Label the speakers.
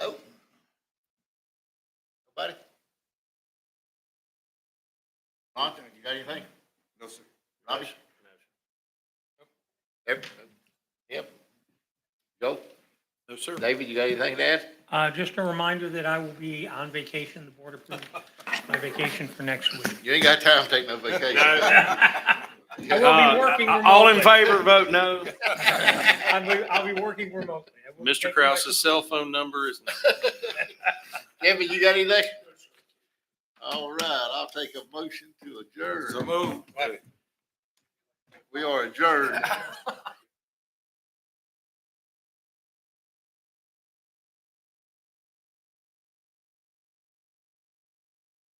Speaker 1: Oh. Nobody? Ron, you got anything?
Speaker 2: No, sir.
Speaker 1: Robbie? Yep. Yep. Joe?
Speaker 2: No, sir.
Speaker 1: David, you got anything to add?
Speaker 3: Uh, Just a reminder that I will be on vacation. The board approved my vacation for next week.
Speaker 1: You ain't got time to take no vacation.
Speaker 3: I will be working
Speaker 4: Uh,
Speaker 3: remotely.
Speaker 4: All in favor, vote no.
Speaker 3: I'll be, I'll be working remotely. I will be
Speaker 4: Mr.
Speaker 3: taking
Speaker 4: Kraus's cell phone number is,
Speaker 1: Kevin, you got anything? All right, I'll take a motion to adjourn.
Speaker 2: So move.
Speaker 1: We are adjourned.